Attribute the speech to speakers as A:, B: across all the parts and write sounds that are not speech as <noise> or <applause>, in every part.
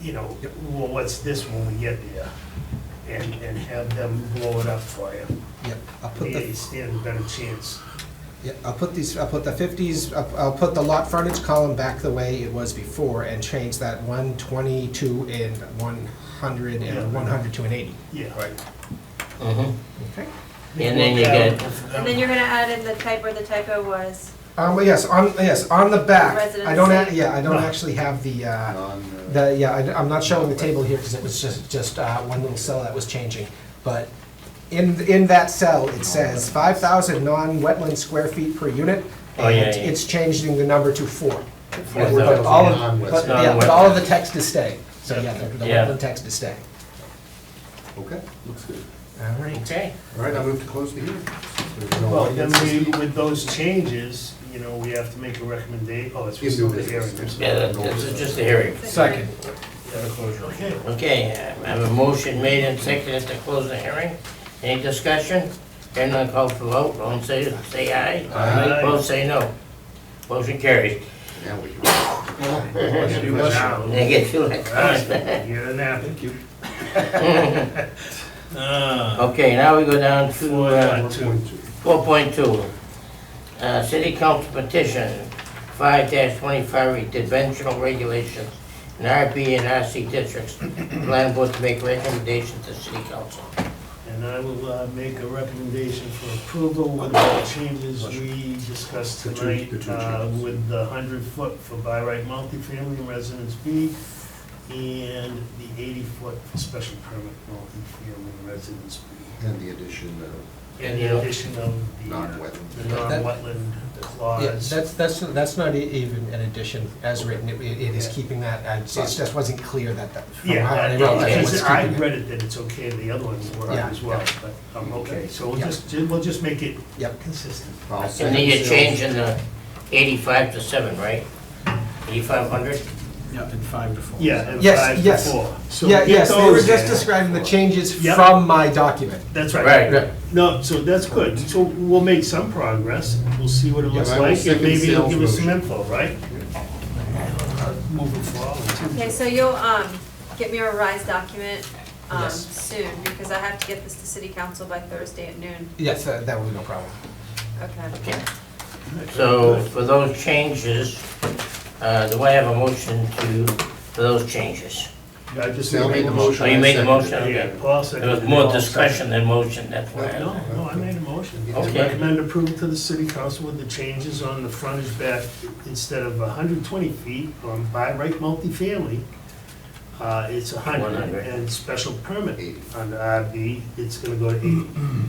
A: you know,
B: Yep.
A: well, what's this when we get there? And, and have them blow it up for you.
B: Yep, I'll put
A: You
B: the,
A: stand a better chance.
B: yeah, I'll put these, I'll put the fifties, I'll, I'll put the lot frontage column back the way it was before and change that one twenty-two and one hundred
A: Yeah.
B: and one hundred to an eighty.
A: Yeah. Right.
C: Mhm.
B: Okay.
C: And then you get,
D: And then you're gonna add in the type where the typo was.
B: Um, but yes, on, yes, on the back, I don't, act-
D: Residency.
B: yeah, I don't
A: No.
B: actually have the, uh,
E: on, uh,
B: the, yeah, I, am not showing the table here because it was just, just, uh, one little cell that was changing. But in, in that cell, it says five thousand non-wetland square feet per unit.
C: Oh, yeah,
B: and
C: yeah.
B: It's changing the number to four.
C: Yeah,
B: But all of,
E: non-wet
B: but,
E: stuff.
B: yeah, but all of the text is staying, so yeah, the the
C: Yeah.
B: wetland text is staying.
E: Okay, looks good.
B: All right.
C: okay,
E: All right, I move to close the hearing. There's no
A: Well, then
E: audience.
A: we, with those changes, you know, we have to make a recommendation, oh, it's
E: Give
A: still
E: new
A: the hearing.
E: business.
C: yeah, that- that's just a hearing.
B: Second.
A: Okay.
C: Okay, I have a motion made and seconded to close the hearing. Any discussion? Hearing none, call for vote, all in say, say aye.
A: Aye.
C: Both say no. Motion carries.
E: Now we can.
A: Now,
C: They get you like
A: right, You're an app.
E: Thank you.
A: <laughs>
C: Okay, now we go down to, uh,
A: One, Uh, two.
C: 4.2, uh, City Council Petition 5-25, Dimensional Regulations in RB and RC Districts. Plan Board to make recommendations to City Council.
A: And I will uh, make a recommendation for approval with the changes we discussed
E: The two-
A: tonight
E: the two
A: uh,
E: changes.
A: with the 100-foot for by right multifamily in Residence B and the 80-foot for special permit multifamily in Residence B.
E: And the addition of
A: And
C: Yeah.
A: the addition of the
E: non-wet.
A: the non-wetland
B: Yeah,
A: clause.
B: that's, that's, that's not e- even an addition as written, it, it is
A: Yeah.
B: keeping that, I- it just wasn't clear that, that. from
A: Yeah,
B: how they
A: that-
B: wrote that,
C: okay.
B: it was
A: because I
B: keeping it.
A: read it that it's okay, the other ones were
B: Yeah.
A: as well, but I'm okay. So we'll
B: Yeah.
A: just, we'll just make it
B: Yep.
A: consistent.
C: And then you're changing the 85 to 7, right? 8,500?
F: Yeah, in five to four.
A: Yeah, and
B: Yes,
A: five to
B: yes.
A: four. So
B: Yeah,
A: get
B: yes, they were
A: those
B: just
A: in.
B: describing the changes
A: Yep.
B: from my document.
A: That's
C: Right.
A: right. No, so that's good. So we'll make some progress. We'll see what it looks
E: Yeah, I will
A: like, and
E: second
A: maybe it'll give us some
E: Sal's
A: info, right? Moving forward.
D: Okay, so you'll, um, get me a revised document, um,
B: Yes.
D: soon, because I have to get this to city council by Thursday at noon.
B: Yes, that that would be no problem.
D: Okay.
C: Okay. So for those changes, uh, do I have a motion to, for those changes?
A: I just
E: Sal made the motion.
C: Oh, you made the
E: I
C: motion?
E: seconded
A: Yeah,
C: Okay.
A: Paul
C: There
A: seconded.
C: was
A: it.
C: more
A: All
C: discussion than motion, that's why.
A: seconded.
C: I-
A: No, no, I made a motion.
C: Okay.
A: Recommend approval to the city council with the changes on the frontage back, instead of 120 feet on by right multifamily, uh, it's 100,
C: 100.
A: and special permit
E: Eighty.
A: under RB, it's gonna go to 80. And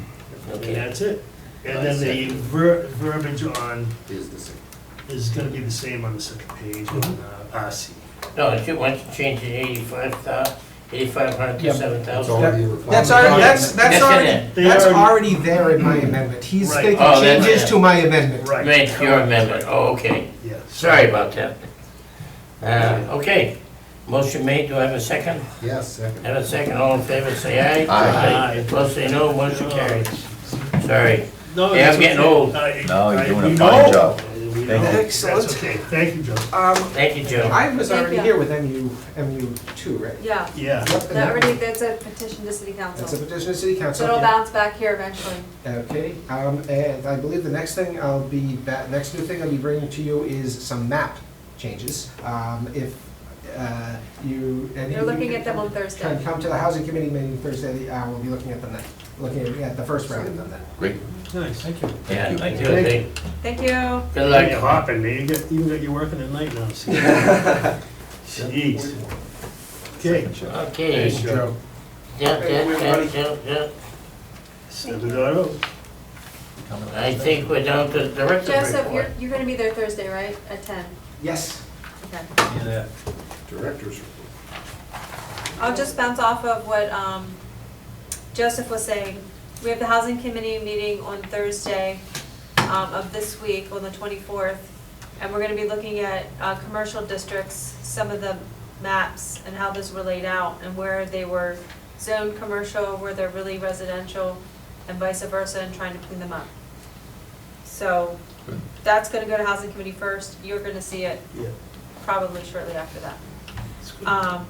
C: Okay,
A: that's it. And then
C: Nice.
A: the ver- verbiage on,
E: it. Is the same.
A: is gonna be the same on the second page on uh, RC.
C: no, if you want to change the 85,000, 8,500
B: Yeah,
C: to
B: but-
C: 7,000.
E: It's already a requirement.
B: That's already, that's, that's
C: That's in
B: already,
C: it.
A: They
B: that's
A: already-
B: already there in my amendment. He's
A: Right.
B: making
C: Oh, that's
B: changes
C: it.
B: to my amendment.
A: Right.
C: Made your amendment, oh, okay.
A: Yeah.
C: Sorry about that. Uh, Okay, motion made, do I have a second?
E: Yes, second.
C: Have a second, all in favor, say aye.
E: Aye.
C: Opposed, say no, motion carries. Sorry.
A: Uh, No,
C: Yeah, I'm
A: that's
C: getting
A: okay.
C: old.
A: I-
G: No, you're
A: I-
G: doing a
A: we
G: fine
A: know.
G: job.
A: We know.
G: Thank
B: you.
A: That's
B: Excellent.
A: okay, thank you, Joe.
B: Um,
C: Thank you, Joe.
B: I was
D: Thank
B: already
D: you.
B: here with MU, MU two, right?
D: Yeah,
A: Yeah,
D: that already, that's a petition to city
B: That's a
D: council,
B: petition to city
D: so
B: council.
D: it'll
B: Yeah.
D: bounce back here eventually.
B: Okay, um, and I believe the next thing I'll be, ba- next new thing I'll be bringing to you is some map changes. Um, if, uh, you. and
D: They're
B: you
D: looking
B: can
D: at them on
B: Come,
D: Thursday.
B: come to the housing committee meeting Thursday, uh, we'll be looking at them then, looking at- at the first round of them then.
G: Great.
A: nice. Thank you.
C: Yeah,
G: Thank
C: thank
G: you.
C: you.
D: Thank you.
C: Good
A: Like you're
C: luck.
A: hopping, man, you got, you got you working at night now. see? Jeez. Okay.
C: Okay.
A: Thanks,
C: Yeah,
A: Joe.
C: yeah, yeah, yeah, yeah.
A: Seven dot oh.
C: I think we're down to the director's
D: Joseph,
C: report.
D: you're, you're gonna be there Thursday, right, at ten?
B: Yes,
D: Okay.
E: Directors.
D: I'll just bounce off of what um, Joseph was saying. We have the housing committee meeting on Thursday um, of this week, on the 24th, and we're going to be looking at uh, commercial districts, some of the maps and how those were laid out and where they were zoned commercial, where they're really residential, and vice versa, and trying to clean them up. So that's going to go to housing committee first. You're going to see it
A: Yeah. Mm-hmm. Uh,
D: probably shortly after that. Um,